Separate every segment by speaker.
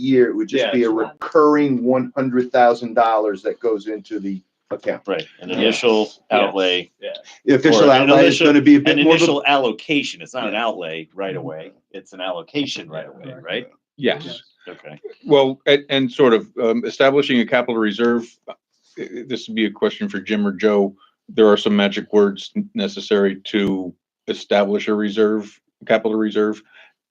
Speaker 1: year, it would just
Speaker 2: Yeah.
Speaker 1: be a recurring one hundred thousand dollars that goes into the account.
Speaker 3: Right, an
Speaker 2: Yeah.
Speaker 3: initial
Speaker 2: Yeah.
Speaker 3: outlay,
Speaker 1: The official
Speaker 3: Or an
Speaker 1: outlay is
Speaker 3: initial-
Speaker 1: gonna be a
Speaker 3: an
Speaker 1: bit more of a-
Speaker 3: initial allocation, it's not an outlay right away, it's an allocation right away, right?
Speaker 4: Yes,
Speaker 3: Okay,
Speaker 4: well, and, and sort of um, establishing a capital reserve, uh, this would be a question for Jim or Joe. There are some magic words necessary to establish a reserve, capital reserve.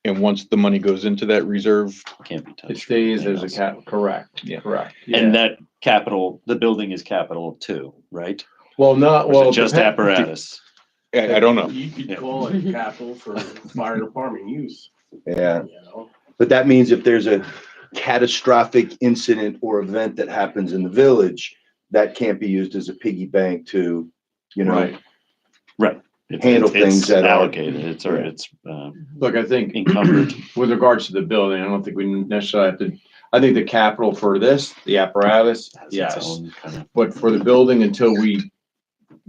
Speaker 4: And once the money goes into that reserve,
Speaker 3: can't be touched.
Speaker 5: It stays as a
Speaker 3: capital,
Speaker 5: cap, correct,
Speaker 4: Yeah.
Speaker 5: correct.
Speaker 3: And
Speaker 5: yeah.
Speaker 3: that capital, the building is capital too, right?
Speaker 5: Well, not,
Speaker 3: Or
Speaker 5: well.
Speaker 3: is it just
Speaker 5: depend-
Speaker 3: apparatus?
Speaker 4: I, I don't know.
Speaker 6: You could
Speaker 3: Yeah.
Speaker 6: call it capital for fire department use,
Speaker 1: Yeah,
Speaker 6: you know?
Speaker 1: but that means if there's a catastrophic incident or event that happens in the village, that can't be used as a piggy bank to, you know,
Speaker 5: Right.
Speaker 3: It's-
Speaker 1: handle
Speaker 3: it's-
Speaker 1: things that are-
Speaker 3: It's allocated, it's, or
Speaker 1: Yeah.
Speaker 3: it's uh,
Speaker 5: Look, I think
Speaker 3: encumbered.
Speaker 5: with regards to the building, I don't think we necessarily have to, I think the capital for this, the apparatus,
Speaker 3: has its
Speaker 5: yes.
Speaker 3: own kind of-
Speaker 5: But for the building, until we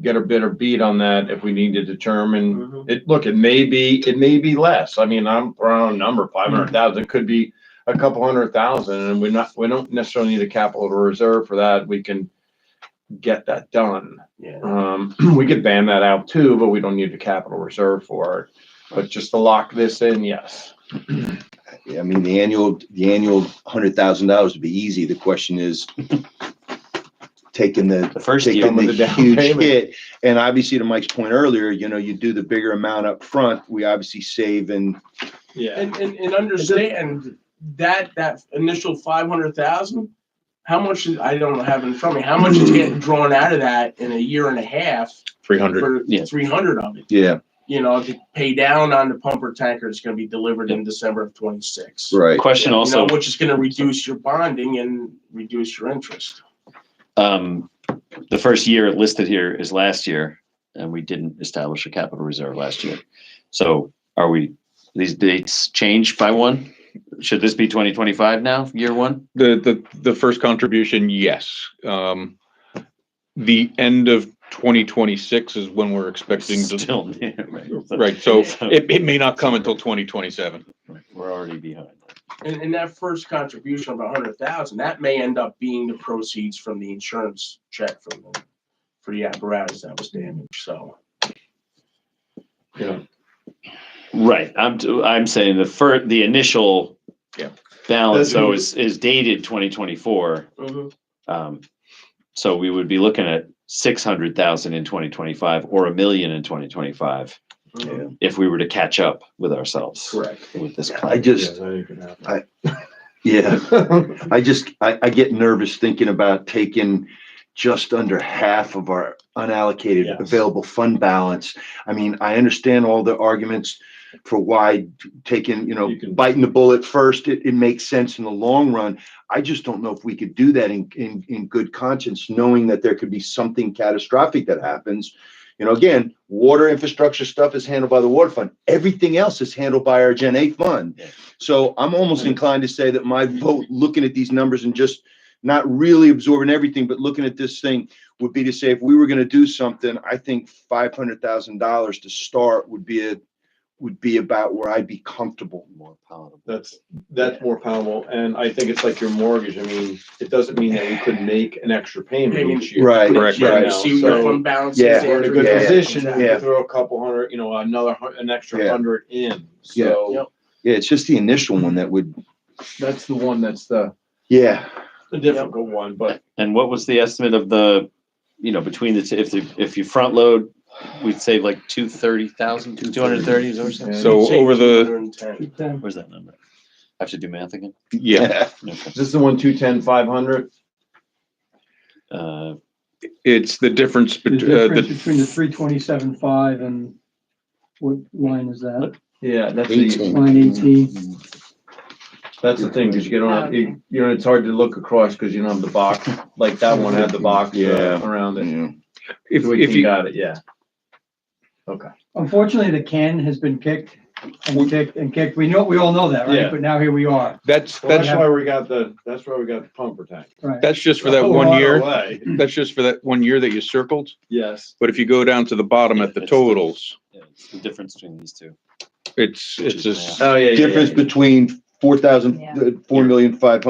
Speaker 5: get a better beat on that, if we need to determine,
Speaker 6: Mhm.
Speaker 5: it, look, it may be, it may be less. I mean, I'm around a number, five hundred thousand, it could be a couple hundred thousand, and we're not, we don't necessarily need a capital reserve for that. We can get that done.
Speaker 6: Yeah.
Speaker 5: Um, we could ban that out too, but we don't need the capital reserve for it. But just to lock this in, yes.
Speaker 1: I mean, the annual, the annual hundred thousand dollars would be easy. The question is taking the
Speaker 3: The first year,
Speaker 1: taking
Speaker 5: with
Speaker 1: the
Speaker 5: the down
Speaker 1: huge
Speaker 5: payment.
Speaker 1: hit. And obviously, to Mike's point earlier, you know, you do the bigger amount up front. we obviously save and
Speaker 5: Yeah.
Speaker 6: And, and, and understand that, that initial five hundred thousand, how much is, I don't have it in front of me, how much is getting drawn out of that in a year and a half?
Speaker 4: Three hundred.
Speaker 6: For
Speaker 3: Yeah.
Speaker 6: three hundred of it,
Speaker 1: yeah,
Speaker 6: you know, to pay down on the pumper tanker that's gonna be delivered in December of twenty-six.
Speaker 3: the
Speaker 1: right.
Speaker 3: question
Speaker 6: You know,
Speaker 3: also,
Speaker 6: Which is gonna reduce your bonding and reduce your interest.
Speaker 3: um, the first year listed here is last year, and we didn't establish a capital reserve last year. So are we, these dates changed by one? Should this be twenty twenty-five now, year one?
Speaker 4: The, the, the first contribution, yes. Um, the end of twenty twenty-six is when we're expecting to,
Speaker 3: Still, yeah, right. So-
Speaker 4: right, so
Speaker 3: So-
Speaker 4: it, it may not come until twenty twenty-seven.
Speaker 3: right, We're already behind.
Speaker 6: And, and that first contribution of a hundred thousand, that may end up being the proceeds from the insurance check from the, for the apparatus that was damaged, so.
Speaker 3: Right, I'm, t- I'm saying the fir, the initial
Speaker 4: Yeah.
Speaker 3: balance, though, is, is dated twenty twenty-four.
Speaker 6: Mm-hmm.
Speaker 3: Um, so we would be looking at six hundred thousand in twenty twenty-five or a million in twenty twenty-five.
Speaker 1: Yeah.
Speaker 3: if we were to catch up with ourselves
Speaker 6: Correct.
Speaker 3: with this
Speaker 1: I
Speaker 3: plan.
Speaker 1: just, yeah, I just, I, I get nervous thinking about taking just under half of our unallocated
Speaker 6: Yes.
Speaker 1: available fund balance. I mean, I understand all the arguments for why taking, you know,
Speaker 5: You can-
Speaker 1: biting the bullet first, it, it makes sense in the long run. I just don't know if we could do that in, in, in good conscience, knowing that there could be something catastrophic that happens. You know, again, water infrastructure stuff is handled by the water fund. Everything else is handled by our Gen A fund.
Speaker 3: Yeah.
Speaker 1: So I'm almost inclined to say that my vote, looking at these numbers and just not really absorbing everything, but looking at this thing would be to say, if we were gonna do something, I think five hundred thousand dollars to start would be a, would be about where I'd be comfortable.
Speaker 3: More palatable.
Speaker 5: That's, that's more palatable, and I think it's like your mortgage, I mean, it doesn't mean that we could make an extra payment each year.
Speaker 1: Right,
Speaker 4: Correct,
Speaker 1: right.
Speaker 5: right.
Speaker 6: You see your fund balance.
Speaker 1: Yeah.
Speaker 5: We're in a good
Speaker 1: Yeah.
Speaker 5: position, if we
Speaker 1: Yeah.
Speaker 5: throw a couple hundred, you know, another, hun- an extra
Speaker 1: Yeah.
Speaker 5: hundred in,
Speaker 1: Yeah.
Speaker 5: so.
Speaker 6: Yep.
Speaker 1: Yeah, it's just the initial one that would,
Speaker 5: That's the one, that's the,
Speaker 1: yeah,
Speaker 5: the difficult one, but
Speaker 3: And what was the estimate of the, you know, between the, two if, the- if you front load, we'd save like two thirty thousand, two hundred thirty is or something?
Speaker 4: So over the,
Speaker 7: uh,
Speaker 3: Where's that number? I have to do math again.
Speaker 4: yeah,
Speaker 3: Okay.
Speaker 5: is this the one, two ten, five hundred?
Speaker 3: Uh,
Speaker 4: It's the difference
Speaker 7: The
Speaker 4: between, uh,
Speaker 7: difference
Speaker 4: the,
Speaker 7: between the three twenty-seven five and what line is that?
Speaker 5: Yeah, that's
Speaker 1: Eighteen.
Speaker 5: the,
Speaker 7: Line eighteen.
Speaker 5: that's the thing, cause you get on, you, you know, it's hard to look across, cause you don't have the box, like that one had the box uh,
Speaker 1: Yeah.
Speaker 5: around it.
Speaker 1: yeah.
Speaker 4: if,
Speaker 5: We
Speaker 4: if
Speaker 5: can
Speaker 4: you,
Speaker 5: Got it, yeah. Okay.
Speaker 7: Unfortunately, the can has been kicked and kicked and kicked. We know, we all know that, right?
Speaker 5: Yeah.
Speaker 7: But now here we are,
Speaker 4: that's,
Speaker 5: Well,
Speaker 4: that's,
Speaker 5: that's why we got the, that's why we got the pumper tank.
Speaker 7: right?
Speaker 4: that's just for that
Speaker 5: Oh,
Speaker 4: one
Speaker 5: on
Speaker 4: year.
Speaker 5: our way.
Speaker 4: That's just for that one year that you circled.
Speaker 5: Yes.
Speaker 4: But if you go down to the bottom at the totals,
Speaker 3: yeah, it's The difference between these two.
Speaker 4: it's, it's a s-
Speaker 5: Oh, yeah.
Speaker 1: Difference between four thousand,
Speaker 2: Yeah.
Speaker 1: four million five hundred.